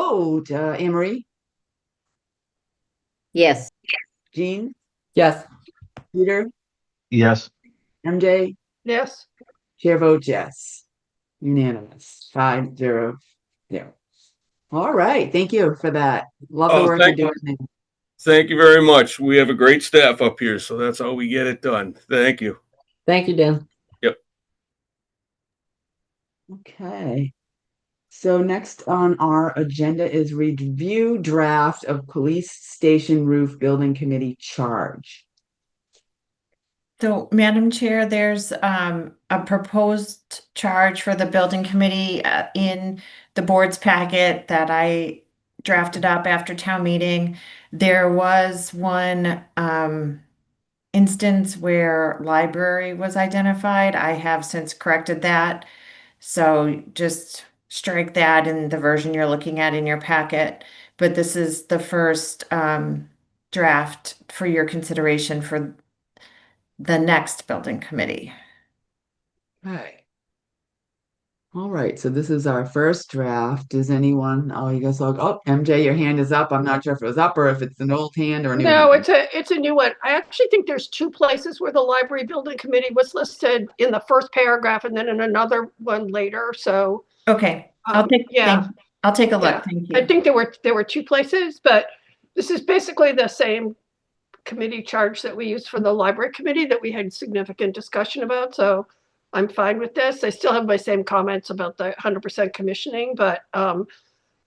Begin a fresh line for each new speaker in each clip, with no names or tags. vote. Uh, Emery,
Yes.
Jean,
Yes.
Peter,
Yes.
MJ,
Yes.
chair votes yes. Unanimous, five zero zero. All right, thank you for that. Love the
Oh,
work you're
thank you.
doing. there.
Thank you very much. We have a great staff up here, so that's how we get it done. Thank you.
Thank you, Dan.
Okay. So next on our agenda is review draft of police station roof building committee charge.
So, Madam Chair, there's um a proposed charge for the building committee uh, in the board's packet that I drafted up after town meeting. There was one um instance where library was identified. I have since corrected that. So just strike that in the version you're looking at in your packet. But this is the first um draft for your consideration for the next building committee.
Okay. All right, so this is our first draft. Does anyone, oh, you guys all, oh, MJ, your hand is up. I'm not sure if it was up or if it's an old hand or a new hand.
No, it's a, it's a new one. I actually think there's two places where the library building committee was listed in the first paragraph and then in another one later. So
Okay, I'll
Um,
take,
yeah.
thank- I'll take a
Yeah.
look, thank
I
you.
think there were, there were two places, but this is basically the same committee charge that we used for the library committee that we had significant discussion about. So I'm fine with this. I still have my same comments about the 100% commissioning, but um,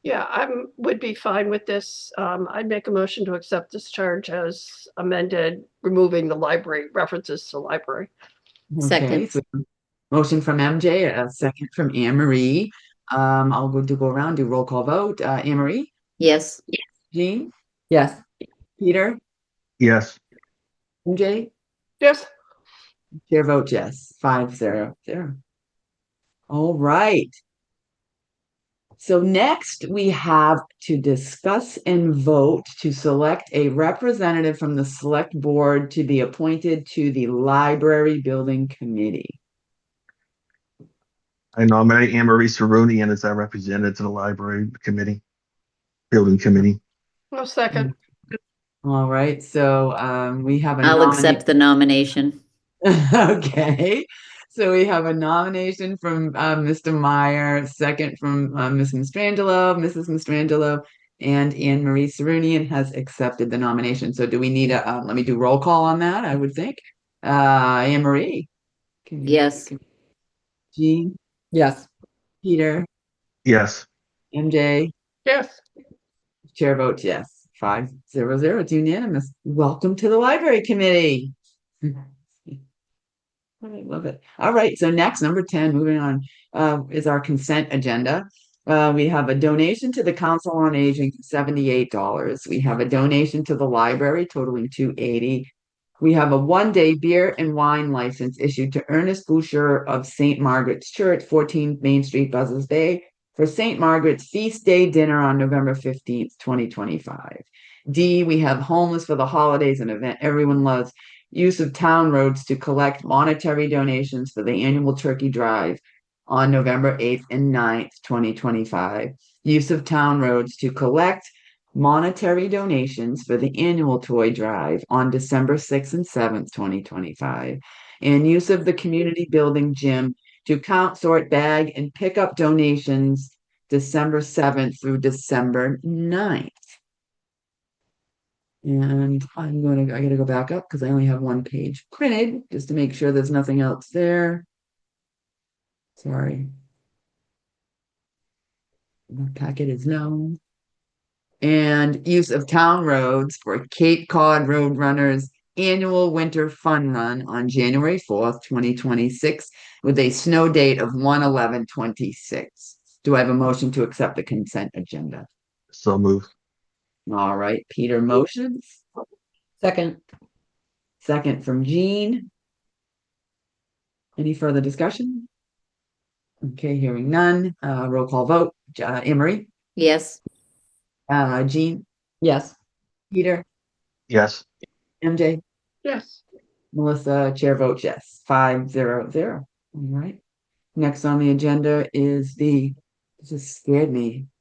yeah, I'm, would be fine with this. Um, I'd make a motion to accept this charge as amended, removing the library, references to library.
Okay,
Second.
so Motion from MJ, a second from Anne Marie. Um, I'll go to go around, do roll call vote. Uh, Anne Marie,
Yes.
Jean,
Yes.
Peter,
Yes.
MJ?
Yes,
Chair vote yes, five zero zero. All right. So next, we have to discuss and vote to select a representative from the select board to be appointed to the library building committee.
I nominate Anne Marie Sarunian as our representative to the library committee, building committee.
no second.
All right, so um, we have a
I'll
nominee-
accept the nomination.
Okay, so we have a nomination from uh, Mr. Meyer, second from uh, Ms. Mistrangelo, Mrs. Mistrangelo, and Anne Marie Serunian has accepted the nomination. So do we need a, uh, let me do roll call on that, I would think. Uh, Anne Marie? Can you-
Yes.
can- Jean,
Yes.
Peter,
Yes.
MJ,
Yes,
chair votes yes, five zero zero, it's unanimous. Welcome to the library committee. I love it. All right, so next, number ten, moving on, uh, is our consent agenda. Uh, we have a donation to the Council on Aging, seventy-eight dollars. We have a donation to the library totaling two eighty. We have a one-day beer and wine license issued to Ernest Boucher of Saint Margaret's Church, fourteen Main Street, Buzzards Bay, for Saint Margaret's Feast Day Dinner on November fifteenth, twenty twenty-five. D, we have homeless for the holidays, an event everyone loves use of town roads to collect monetary donations for the annual turkey drive on November 8th and 9th, 2025. Use of town roads to collect monetary donations for the annual toy drive on December 6th and 7th, 2025. And use of the community building gym to count, sort, bag, and pick up donations December 7th through December 9th. And I'm going to, I gotta go back up because I only have one page printed, just to make sure there's nothing else there. Sorry. The packet is known. And use of town roads for Cape Cod Road Runners Annual Winter Fun Run on January fourth, twenty twenty-six, with a snow date of one eleven twenty-six. Do I have a motion to accept the consent agenda?
So move.
All right, Peter motions.
Second.
Second from Jean. Any further discussion? Okay, hearing none, uh, roll call vote, J- uh, Emery,
Yes.
uh, Jean,
Yes.
Peter,
Yes.
MJ,
yes.
Melissa, chair votes yes, five zero zero, all right. Next on the agenda is the, this just scared me,